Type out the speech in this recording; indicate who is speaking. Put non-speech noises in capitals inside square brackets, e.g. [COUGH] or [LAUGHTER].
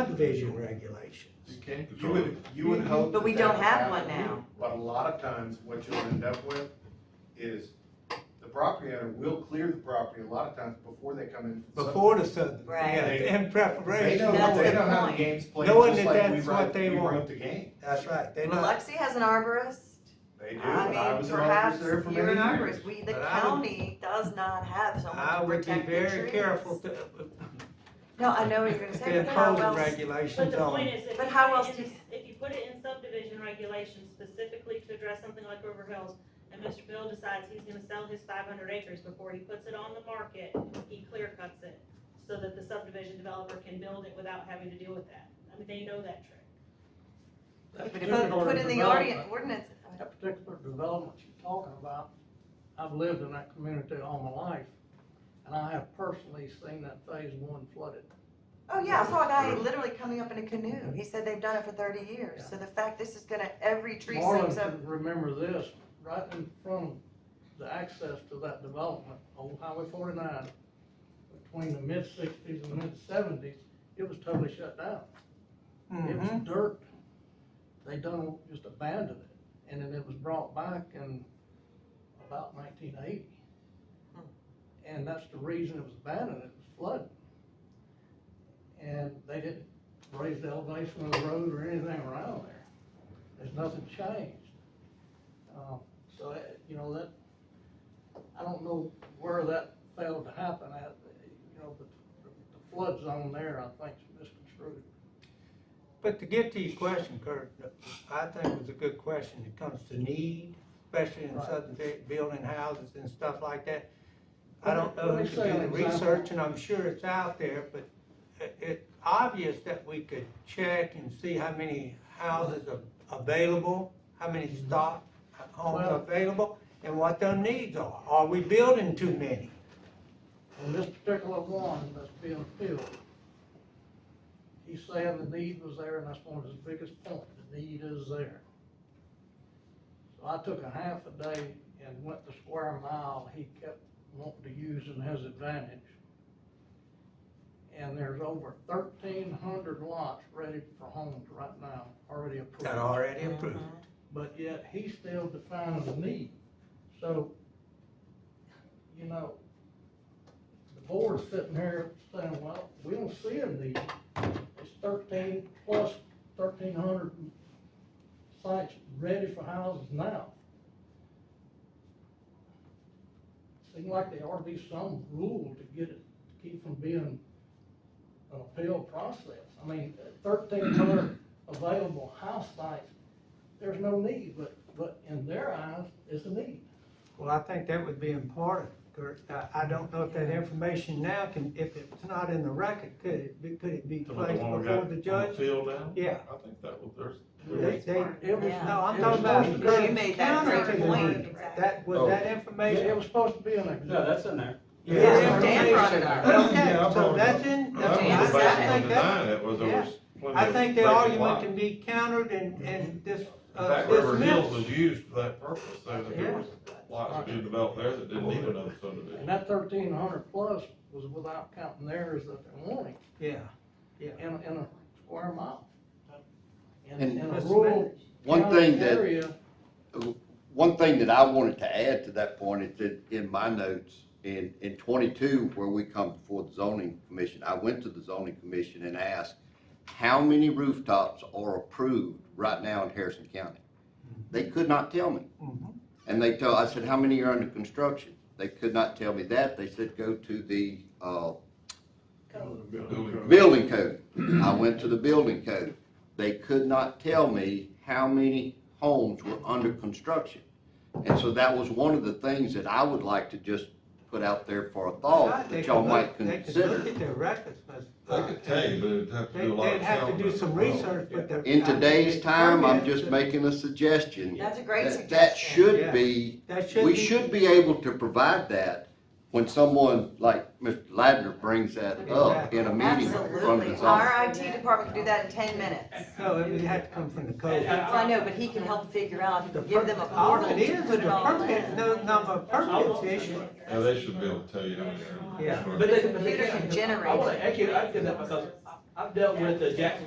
Speaker 1: subdivision regulations.
Speaker 2: You can, you would, you would hope.
Speaker 3: But we
Speaker 2: that that
Speaker 3: don't
Speaker 2: would
Speaker 3: have one
Speaker 2: happen.
Speaker 3: now.
Speaker 2: But a lot of times, what you'll end up with is the property owner will clear the property a lot of times before they come in. for
Speaker 1: Before the sub,
Speaker 3: Right.
Speaker 1: yeah, in
Speaker 2: subdivision. They
Speaker 1: preparation.
Speaker 2: know,
Speaker 3: That's
Speaker 2: they
Speaker 3: the
Speaker 2: know how the
Speaker 3: point.
Speaker 2: game's played,
Speaker 1: Knowing
Speaker 2: just
Speaker 1: that
Speaker 2: like we
Speaker 1: that's what
Speaker 2: wrote,
Speaker 1: they
Speaker 2: we wrote
Speaker 1: want.
Speaker 2: the game.
Speaker 1: That's right, they know.
Speaker 3: Biloxi has an arborist.
Speaker 2: They do, and
Speaker 3: I
Speaker 2: I was
Speaker 3: mean,
Speaker 2: an officer
Speaker 3: perhaps
Speaker 2: there for
Speaker 3: you're an
Speaker 2: many years.
Speaker 3: arborist. We, the
Speaker 1: But I would-
Speaker 3: county does not have
Speaker 1: I
Speaker 3: someone to
Speaker 1: would be
Speaker 3: protect the trees.
Speaker 1: very careful to, uh,
Speaker 3: No, I know what you're gonna say,
Speaker 1: to
Speaker 3: but how
Speaker 1: impose
Speaker 3: else,
Speaker 4: But
Speaker 1: regulations
Speaker 4: the
Speaker 1: on.
Speaker 4: point is, if you
Speaker 3: But how
Speaker 4: put it
Speaker 3: else
Speaker 4: in-
Speaker 3: do-
Speaker 4: if you put it in subdivision regulations specifically to address something like River Hills, and Mr. Bill decides he's gonna sell his five hundred acres before he puts it on the market, he clear cuts it, so that the subdivision developer can build it without having to deal with that. I mean, they know that trick.
Speaker 5: That
Speaker 3: but if you
Speaker 5: particular
Speaker 3: put in the
Speaker 5: development-
Speaker 3: ordi- ordinance,
Speaker 5: That particular development you're talking about, I've lived in that community all my life, and I have personally seen that phase one flooded.
Speaker 3: oh yeah, I saw a guy literally coming up in a canoe. He said they've done it for thirty years. So the fact this is gonna, every tree
Speaker 5: Marlon
Speaker 3: sinks up.
Speaker 5: can remember this, right in front of the access to that development, old Highway forty-nine, between the mid-sixties and mid-seventies, it was totally shut down. It was
Speaker 1: Mhm.
Speaker 5: dirt. They done, just abandoned it, and then it was brought back in about nineteen eighty. And that's the reason it was abandoned, it was flooded. And they didn't raise the elevation of the road or anything around there. There's nothing changed. Um, so, eh, you know, that, I don't know where that failed to happen at, you know, but the flood zone there, I think, is misconstrued.
Speaker 1: But to get to your question, Kurt, I think it was a good question. It comes to need, especially in
Speaker 5: Right.
Speaker 1: subdivision, building houses and stuff like that. I don't know
Speaker 5: Let
Speaker 1: who
Speaker 5: me
Speaker 1: could
Speaker 5: say
Speaker 1: do
Speaker 5: an
Speaker 1: the
Speaker 5: example.
Speaker 1: research, and I'm sure it's out there, but it, it's obvious that we could check and see how many houses are available, how many stock uh, homes
Speaker 5: Well-
Speaker 1: are available, and what their needs are. Are we building too many?
Speaker 5: On this particular one that's being filled, he said the need was there, and that's one of his biggest points, the need is there. So I took a half a day and went the square mile he kept wanting to use in his advantage. And there's over thirteen hundred lots ready for homes right now, already approved.
Speaker 1: That are already approved.
Speaker 5: But yet, he still defining the need. So, you know, the board's sitting here saying, well, we don't see a need. It's thirteen plus thirteen hundred sites ready for houses now. Seem like there ought to be some rule to get it, to keep from being an appeal process. I mean, thirteen hundred available house sites there's no need, but, but in their eyes, it's a need.
Speaker 1: Well, I think that would be important, Kurt. I, I don't know if that information now can, if it's not in the record, could it, be- could it be
Speaker 6: Some of the
Speaker 1: placed
Speaker 6: one we
Speaker 1: before
Speaker 6: got
Speaker 1: the
Speaker 6: on
Speaker 1: judge?
Speaker 6: Field down?
Speaker 1: Yeah.
Speaker 6: I think that was, there's.
Speaker 1: They, they, it was,
Speaker 3: Yeah.
Speaker 1: no, I'm
Speaker 5: It
Speaker 1: talking
Speaker 5: was
Speaker 1: about
Speaker 5: supposed to be-
Speaker 1: Kurt's
Speaker 3: You made that
Speaker 1: counter
Speaker 3: great
Speaker 1: to the
Speaker 3: point,
Speaker 1: word.
Speaker 3: exactly.
Speaker 1: That, was
Speaker 6: Oh.
Speaker 1: that
Speaker 5: Yeah,
Speaker 1: information?
Speaker 5: It was supposed to be an exhibit.
Speaker 7: No, that's in there.
Speaker 1: Yeah,
Speaker 3: Yeah, Dan brought it up.
Speaker 1: Okay,
Speaker 6: Yeah, I
Speaker 1: so
Speaker 6: brought it
Speaker 1: that's
Speaker 6: up.
Speaker 1: in,
Speaker 6: That
Speaker 1: that's,
Speaker 3: Okay,
Speaker 1: I
Speaker 6: was based on
Speaker 1: think that,
Speaker 6: denying it, was there
Speaker 1: yeah.
Speaker 6: was plenty
Speaker 1: I
Speaker 6: of
Speaker 1: think the
Speaker 6: vacant
Speaker 1: argument
Speaker 6: lots.
Speaker 1: can be countered and, and dis,
Speaker 6: In
Speaker 1: uh,
Speaker 6: fact, River Hills
Speaker 1: dismissed.
Speaker 6: was used for that purpose, so that there
Speaker 1: Yeah.
Speaker 6: was lots being developed there that didn't need another subdivision.
Speaker 5: And that thirteen hundred plus was without counting theirs that they're wanting,
Speaker 1: Yeah,
Speaker 5: in, a- in a square mile. In,
Speaker 8: And-
Speaker 5: in a
Speaker 1: That's
Speaker 5: rural
Speaker 8: One
Speaker 5: county
Speaker 8: thing that-
Speaker 5: area,
Speaker 8: One thing that I wanted to add to that point is that in my notes, in, in twenty-two, where we come before the zoning commission, I went to the zoning commission and asked, how many rooftops are approved right now in Harrison County? They could not tell me.
Speaker 1: Mhm.
Speaker 8: And they tell, I said, how many are under construction? They could not tell me that. They said, go to the, uh, building code. [CLEARS THROAT] I went to the building code. They could not tell me how many homes were under construction. And so that was one of the things that I would like to just put out there for a thought
Speaker 1: They
Speaker 8: that y'all
Speaker 1: could
Speaker 8: might
Speaker 1: look- They could look
Speaker 8: consider.
Speaker 1: at their records, but. uh,
Speaker 6: They could tell you, but it'd have to
Speaker 1: They,
Speaker 6: do a lot
Speaker 1: they'd
Speaker 6: of.
Speaker 1: have to do
Speaker 6: settlement.
Speaker 1: some research, but they're.
Speaker 8: In today's time, I'm
Speaker 1: Permits,
Speaker 8: just making a suggestion.
Speaker 3: That's a great
Speaker 8: that That
Speaker 3: suggestion.
Speaker 1: Yeah.
Speaker 8: should be
Speaker 1: That should
Speaker 8: We
Speaker 1: be-
Speaker 8: should be able to provide that when someone like Mr. Ladner brings that up in a meeting from the
Speaker 3: Absolutely.
Speaker 8: zone.
Speaker 3: Our IT department can do that in ten minutes.
Speaker 1: No, it would have to come from the code.
Speaker 3: Well, I know, but he can help figure out, he
Speaker 1: The
Speaker 3: can give them a
Speaker 1: per- all
Speaker 3: portal
Speaker 1: it is
Speaker 3: to
Speaker 1: is
Speaker 3: put it
Speaker 1: the
Speaker 3: all
Speaker 1: permit,
Speaker 3: in.
Speaker 1: no number of permits issued.
Speaker 6: Yeah, they should be able to tell you how many. are under
Speaker 1: Yeah.
Speaker 6: construction.
Speaker 7: But they, but they
Speaker 3: Computer
Speaker 7: can.
Speaker 3: can generate
Speaker 7: I wanna
Speaker 3: it.
Speaker 7: echo, I did that myself. I I've dealt with the Jackson